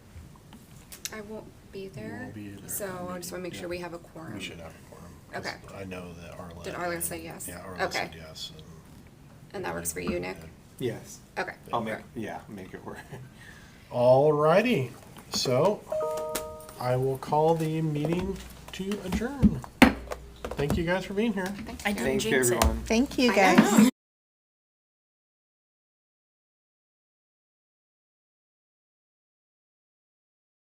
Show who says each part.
Speaker 1: I won't be there,
Speaker 2: won't be there.
Speaker 1: so I just wanna make sure we have a quorum.
Speaker 2: We should have a quorum. 'cause
Speaker 1: Okay.
Speaker 2: I know that Arlen.
Speaker 1: Did Arlen say yes?
Speaker 2: Yeah, Arlen said
Speaker 1: Okay.
Speaker 2: yes. and-
Speaker 1: And that works for you, Nick?
Speaker 3: Yes.
Speaker 1: Okay.
Speaker 3: I'll make,
Speaker 1: great.
Speaker 3: yeah, make it work.
Speaker 2: All righty, so I will call the meeting to adjourn. Thank you guys for being here.
Speaker 1: Thank
Speaker 4: I
Speaker 1: you.
Speaker 4: didn't
Speaker 3: Thank you,
Speaker 4: jinx it.
Speaker 3: everyone.
Speaker 5: Thank you,
Speaker 1: I
Speaker 5: guys.
Speaker 1: know.